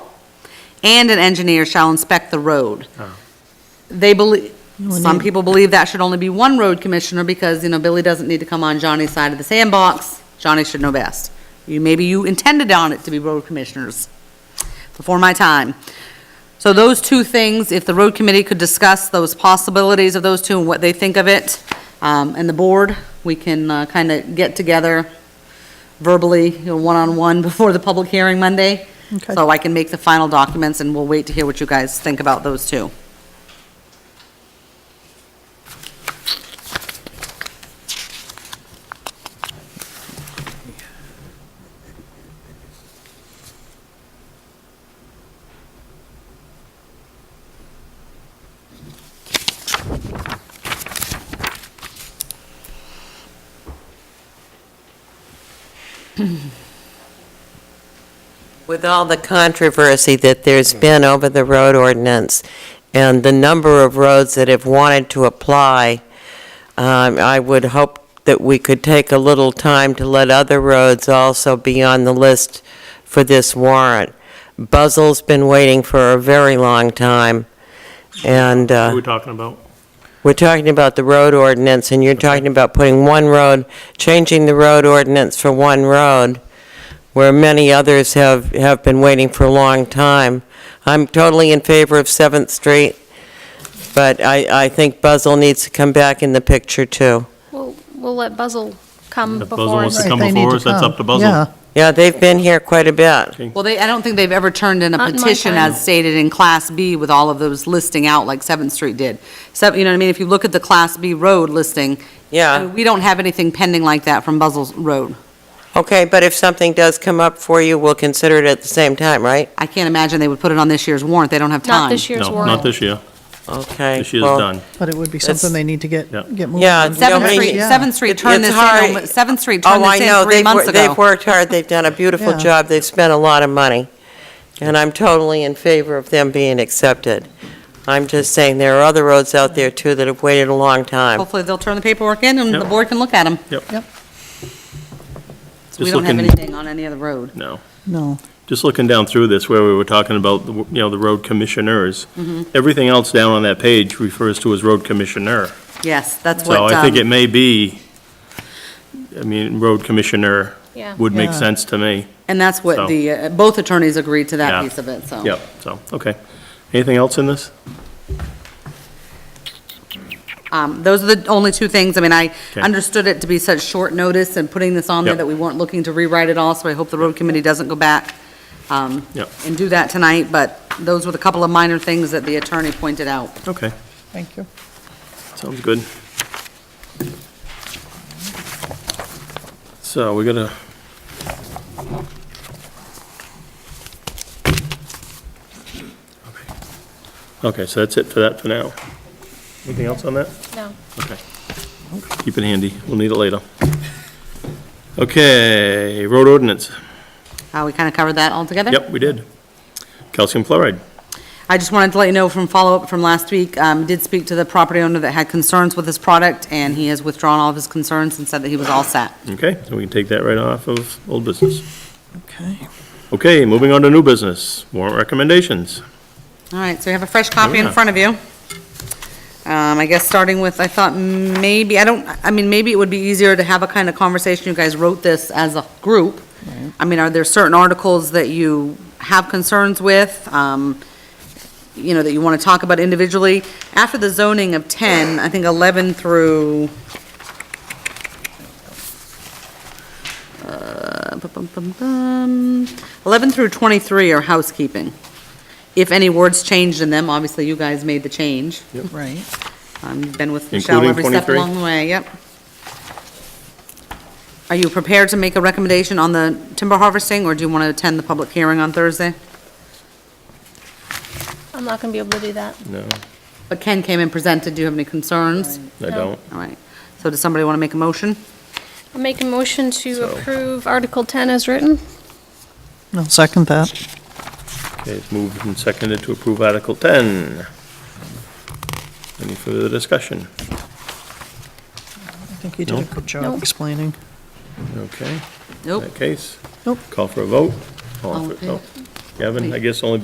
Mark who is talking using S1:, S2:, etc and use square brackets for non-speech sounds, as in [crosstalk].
S1: and an engineer shall inspect the road. They believe, some people believe that should only be one road commissioner because, you know, Billy doesn't need to come on Johnny's side of the sandbox. Johnny should know best. You, maybe you intended on it to be road commissioners before my time. So those two things, if the road committee could discuss those possibilities of those two and what they think of it, um, and the board, we can kind of get together verbally, you know, one-on-one [laughs] before the public hearing Monday.
S2: Okay.
S1: So I can make the final documents, and we'll wait to hear what you guys think about those two.
S3: With all the controversy that there's been over the road ordinance and the number of roads that have wanted to apply, um, I would hope that we could take a little time to let other roads also be on the list for this warrant. Buzzell's been waiting for a very long time, and
S4: Who are we
S3: uh,
S4: talking about?
S3: we're talking about the road ordinance, and you're talking about putting one road, changing the road ordinance for one road where many others have, have been waiting for a long time. I'm totally in favor of Seventh Street, but I, I think Buzzell needs to come back in the picture, too.
S5: We'll, we'll let Buzzell come
S4: If
S5: before.
S4: Buzzell wants
S5: us.
S4: to come
S2: Right, they need
S4: before
S2: to
S4: us, that's up
S2: come.
S4: to Buzzell.
S2: Yeah,
S3: Yeah, they've been here quite a bit.
S1: Well, they, I don't think they've ever turned in a
S5: Not in my
S1: petition
S5: time.
S1: as stated in Class B with all of those listing out, like Seventh Street did. So, you know what I mean? If you look at the Class B road listing, I mean,
S3: Yeah,
S1: we don't have anything pending like that from Buzzell's Road.
S3: okay, but if something does come up for you, we'll consider it at the same time, right?
S1: I can't imagine they would put it on this year's warrant, they don't have time.
S5: Not this year's
S4: No,
S5: warrant.
S4: not this year.
S3: Okay.
S4: This year's
S3: well,
S4: done.
S2: but it would be
S3: That's-
S2: something they need to get,
S4: Yeah.
S2: get moving.
S3: Yeah,
S2: on.
S1: Seventh
S3: Nobody-
S1: Street,
S2: Yeah.
S1: Seventh Street
S3: It-
S1: turned this
S3: it's
S1: in,
S3: hard.
S1: on- Seventh Street
S3: Oh,
S1: turned
S3: I
S1: this
S3: know,
S1: in three
S3: they've,
S1: months
S3: wor- they've
S1: ago.
S3: worked hard, they've done a beautiful
S2: Yeah.
S3: job, they've spent a lot of money, and I'm totally in favor of them being accepted. I'm just saying, there are other roads out there, too, that have waited a long time.
S1: Hopefully, they'll turn the paperwork in and the
S4: Yep.
S1: board can look at them.
S4: Just
S1: We don't have
S4: looking-
S1: anything on any other road.
S4: No.
S2: No,
S4: Just looking down through this, where we were talking about, the w- you know, the road commissioners,
S1: Mm-hmm.
S4: everything else down on that page refers to as road commissioner.
S1: Yes, that's
S4: So
S1: what,
S4: I think it
S1: um,
S4: may be, I mean, road commissioner
S5: Yeah.
S4: would make
S2: Yeah.
S4: sense to me.
S1: and that's
S4: so.
S1: what the, uh, both attorneys agreed to that
S4: Yeah.
S1: piece of it, so.
S4: Yep, so, okay. Anything else in this?
S1: Um, Those are the only two things, I mean, I
S4: Okay.
S1: understood it to be such short notice and putting this on there
S4: Yep.
S1: that we weren't looking to rewrite it all, so I hope the road committee doesn't go back um,
S4: Yep.
S1: and do that tonight, but those were the couple of minor things that the attorney pointed out.
S4: Okay,
S2: thank you.
S4: sounds good. So we're gonna, okay, so that's it for that for now. Anything else on that?
S5: No.
S4: Okay. Keep it handy, we'll need it later. Okay, road ordinance.
S1: Uh, We kind of covered that all together?
S4: Yep, we did. Calcium fluoride.
S1: I just wanted to let you know from follow-up from last week, um, did speak to the property owner that had concerns with this product, and he has withdrawn all of his concerns and said that he was all set.
S4: Okay, so we can take that right off of old business.
S2: Okay.
S4: Okay, moving on to new business, warrant recommendations.
S1: All right, so you have a fresh copy in
S4: Yeah.
S1: front of you. Um, I guess starting with, I thought maybe, I don't, I mean, maybe it would be easier to have a kind of conversation, you guys wrote this as a group. I mean, are there certain articles that you have concerns with, um, you know, that you want to talk about individually? After the zoning of 10, I think 11 through, uh, bum, bum, bum, bum, 11 through 23 are housekeeping. If any words changed in them, obviously you guys made the change.
S2: Right.
S1: Um, You've been with Michelle
S4: Including
S1: every step
S4: 23?
S1: along the way, yep. Are you prepared to make a recommendation on the timber harvesting, or do you want to attend the public hearing on Thursday?
S5: I'm not going to be able to do that.
S4: No,
S1: But Ken came and presented, do you have any concerns?
S4: I
S5: No.
S4: don't.
S1: All right, so does somebody want to make a motion?
S5: I'll make a motion
S4: So-
S5: to approve Article 10 as written.
S2: I'll second that.
S4: Okay, it's moved and seconded to approve Article 10. Any further discussion?
S2: I think you did a
S4: Nope.
S2: good job
S5: Nope.
S2: explaining.
S4: Okay, in
S1: Nope.
S4: that case,
S2: Nope.
S4: call for a vote. All
S1: All
S4: in
S1: in
S4: fa- oh, Kevin, I guess only